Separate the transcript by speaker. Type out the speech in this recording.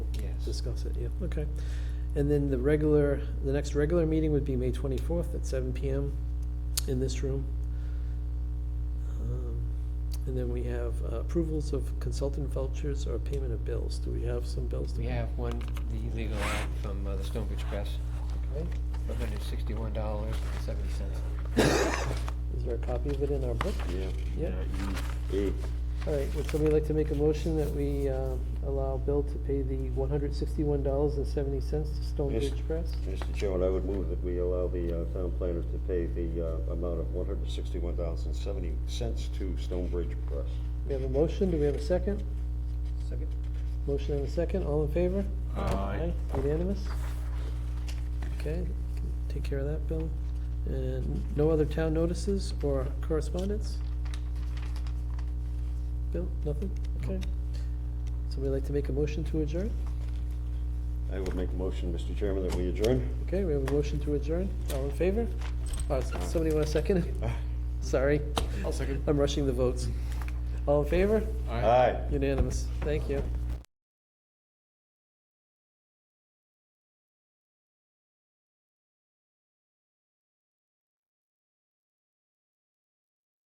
Speaker 1: discuss it, yeah, okay. And then the regular, the next regular meeting would be May twenty-fourth at seven PM in this room. Um, And then we have uh, approvals of consultant vouchers or payment of bills. Do we have some bills? to
Speaker 2: We
Speaker 1: pay?
Speaker 2: have one, the legal ad from uh, the Stonebridge Press,
Speaker 1: Okay.
Speaker 2: for $161.70.
Speaker 1: Is there a copy of it in our book?
Speaker 3: Yeah.
Speaker 1: Yeah.
Speaker 3: Ooh,
Speaker 1: All right, would somebody like to make a motion that we uh, allow Bill to pay the one hundred sixty-one dollars and seventy cents to Stone
Speaker 3: Yes.
Speaker 1: Ridge Press?
Speaker 3: Mr. Chairman, I would move that we allow the uh, town planners to pay the uh, amount of one hundred sixty-one thousand seventy cents to Stonebridge Press.
Speaker 1: We have a motion, do we have a second?
Speaker 2: Second.
Speaker 1: Motion and a second, all in favor?
Speaker 4: Aye.
Speaker 1: Unanimous? Okay, take care of that, Bill. And no other town notices or correspondence? Bill, nothing? Okay. Somebody like to make a motion to adjourn?
Speaker 3: I would make a motion, Mr. Chairman, that we adjourn.
Speaker 1: Okay, we have a motion to adjourn, all in favor? Uh, s- Somebody want a second? it? Sorry,
Speaker 4: I'll second.
Speaker 1: I'm rushing the votes. All in favor?
Speaker 3: Aye.
Speaker 1: Unanimous, thank you.